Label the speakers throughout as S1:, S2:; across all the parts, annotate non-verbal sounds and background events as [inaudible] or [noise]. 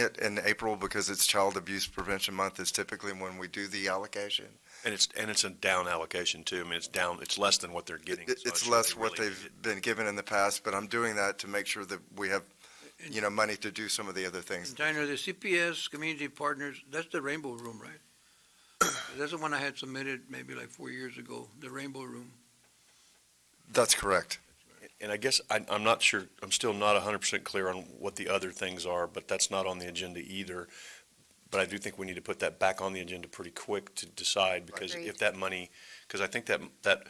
S1: it in April because it's Child Abuse Prevention Month is typically when we do the allocation.
S2: And it's, and it's a down allocation too. I mean, it's down, it's less than what they're getting.
S1: It-
S2: so I'm
S1: It's
S2: sure
S1: less
S2: they
S1: what
S2: really
S1: they've been given in the past, but I'm doing that to make sure that we have, you know, money to do some of the other things.
S3: And Diner, the CPS Community Partners, that's the Rainbow Room, right?
S4: [coughs]
S3: That's the one I had submitted maybe like four years ago, the Rainbow Room.
S1: That's correct.
S2: And I guess I, I'm not sure, I'm still not hundred percent clear on what the other things are, but that's not on the agenda either. But I do think we need to put that back on the agenda pretty quick to decide, because
S5: Agreed.
S2: if that money, because I think that, that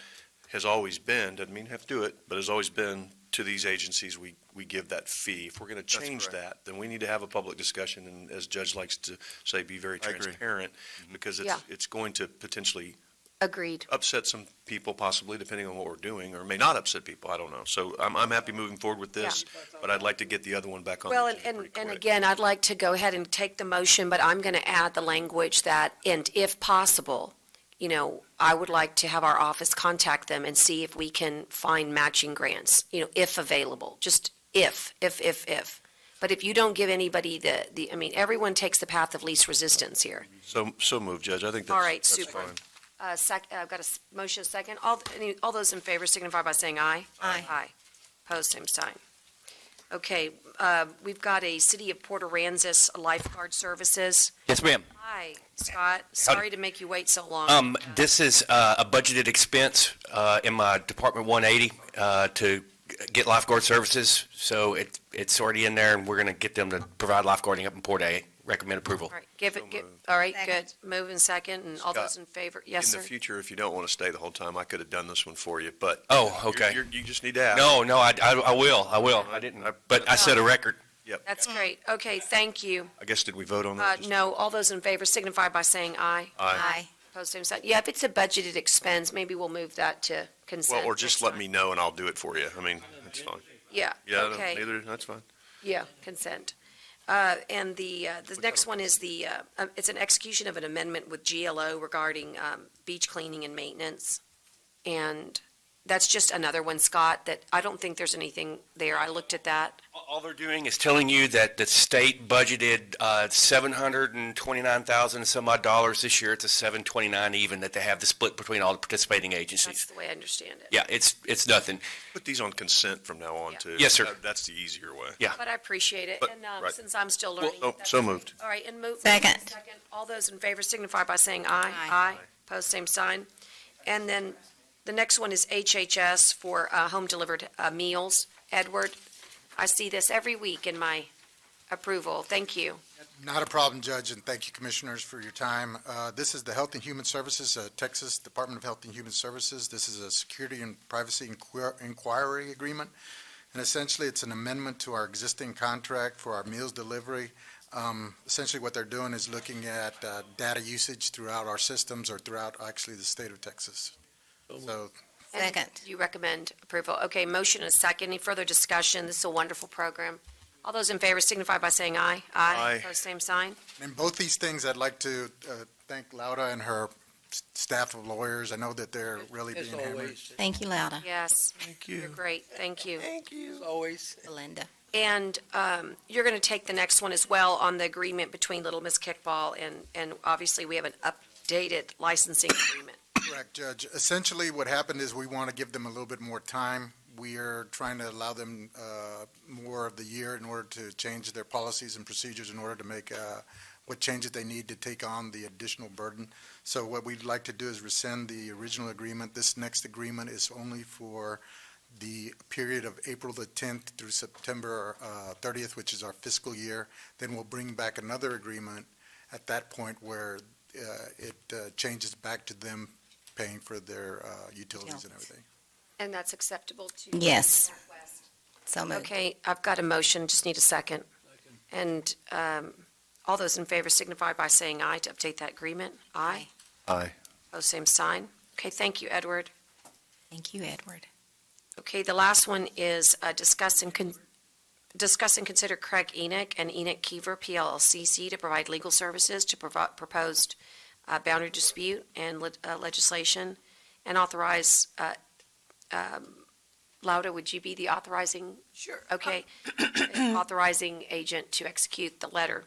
S2: has always been, doesn't mean you have to do it, but has always been to these agencies, we, we give that fee. If we're gonna change
S1: correct.
S2: that, then we need to have a public discussion, and as Judge likes to say, be very
S1: I agree. Mm-hmm.
S2: transparent, because it's, it's going to potentially
S5: Agreed.
S2: upset some people possibly, depending on what we're doing, or may not upset people, I don't know. So I'm, I'm happy moving forward with this, but I'd like to get the other one back on the
S5: Well, and,
S2: agenda
S5: and,
S2: pretty
S5: and
S2: quick.
S5: again, I'd like to go ahead and take the motion, but I'm going to add the language that, and if possible, you know, I would like to have our office contact them and see if we can find matching grants, you know, if available, just if, if, if, if. But if you don't give anybody the, the, I mean, everyone takes the path of least resistance here.
S2: So, so moved, Judge, I think that's.
S5: All right,
S2: that's
S5: super.
S2: fine.
S5: Uh, sec, I've got a s- motion second. All, any, all those in favor signify by saying aye. Aye. Aye. Opposed, same sign. Okay, uh, we've got a City of Port Aransas lifeguard services.
S6: Yes, ma'am.
S5: Hi, Scott. Sorry to make you wait so long.
S6: Um, this is, uh, a budgeted expense, uh, in my Department one eighty, uh, to get lifeguard services. So it, it's already in there and we're gonna get them to provide lifeguarding up in Port A. Recommend approval.
S5: All right, give it, give, all right, good. Move and second, and all
S2: Scott,
S5: those in favor, yes,
S2: In
S5: sir?
S2: the future, if you don't want to stay the whole time, I could have done this one for you, but.
S6: Oh,
S2: you're-
S6: okay.
S2: you're- You just need to ask.
S6: No, no, I, I, I will, I will. uh, I didn't, but I set a record.
S2: Yep.
S5: That's great. Okay, thank you.
S2: I guess, did we vote on
S5: Uh,
S2: that? Just-
S5: no, all those in favor signify by saying aye.
S2: Aye.
S5: Opposed, same sign. Yeah, if it's a budgeted expense, maybe we'll move that to consent.
S2: Well, or just
S5: next
S2: let
S5: time.
S2: me know and I'll do it for you. I mean, that's fine.
S5: Yeah,
S2: Yeah, no,
S5: okay,
S2: neither, that's fine.
S5: yeah, consent. Uh, and the, uh, the next one is the, uh, uh, it's an execution of an amendment with GLO regarding, um, beach cleaning and maintenance. And that's just another one, Scott, that I don't think there's anything there. I looked at that.
S6: All they're doing is telling you that the state budgeted, uh, seven hundred and twenty-nine thousand some odd dollars this year. It's a seven twenty-nine even that they have the split between all the participating
S5: That's
S6: agencies.
S5: the way I understand it.
S6: Yeah, it's, it's nothing.
S2: Put these on consent from now on
S5: Yeah.
S2: too.
S6: Yes, sir.
S2: That- That's the easier way.
S6: Yeah.
S5: But I appreciate it,
S2: But-
S5: and, um,
S2: right.
S5: since I'm still learning.
S2: oh,
S5: that's
S2: so
S5: great.
S2: moved.
S5: All right, and move.
S7: Second.
S5: All those in favor signify by saying aye. Aye. Pose same sign. And then the next one is HHS for, uh, home-delivered, uh, meals. Edward, I see this every week in my approval. Thank you.
S4: Not a problem, Judge, and thank you, Commissioners, for your time. Uh, This is the Health and Human Services, uh, Texas Department of Health and Human Services. This is a security and privacy inquir- inquiry agreement, and essentially, it's an amendment to our existing contract for our meals delivery. Um, Essentially, what they're doing is looking at uh, data usage throughout our systems or throughout, actually, the state of Texas. So,
S5: And
S7: Second.
S5: You recommend approval. Okay, motion and a second. Any further discussion? This is a wonderful program. All those in favor signify by saying aye.
S2: Aye.
S5: Pose same sign.
S4: in both these things, I'd like to uh, thank Laura and her s- staff of lawyers. I know that they're really being
S3: As
S4: hammered.
S3: always,
S7: Thank you, Lauda.
S5: Yes. Thank you. You're great. Thank you.
S3: as always.
S7: Belinda.
S5: And um, you're going to take the next one as well on the agreement between Little Miss Kickball and, and obviously we have an updated licensing agreement.
S4: Correct, Judge. Essentially, what happened is we want to give them a little bit more time. We are trying to allow them uh, more of the year in order to change their policies and procedures in order to make uh, what changes they need to take on the additional burden. So what we'd like to do is rescind the original agreement. This next agreement is only for the period of April the 10th through September uh, 30th, which is our fiscal year. Then we'll bring back another agreement at that point where uh, it uh, changes back to them paying for their uh, utilities and
S7: Utilities.
S4: everything.
S5: And that's acceptable to?
S7: Yes. So moved.
S5: Okay, I've got a motion, just need a second. And um, all those in favor signify by saying aye to update that agreement. Aye.
S2: Aye.
S5: Oh, same sign. Okay, thank you, Edward.
S7: Thank you, Edward.
S5: Okay, the last one is uh, discuss and, con- discuss and consider Craig Enoch and Enoch Kiever PLLCC to provide legal services to provi- proposed uh, boundary dispute and lit- uh, legislation, and authorize, uh, um, Lauda, would you be the authorizing? Sure. Okay, authorizing agent to execute the letter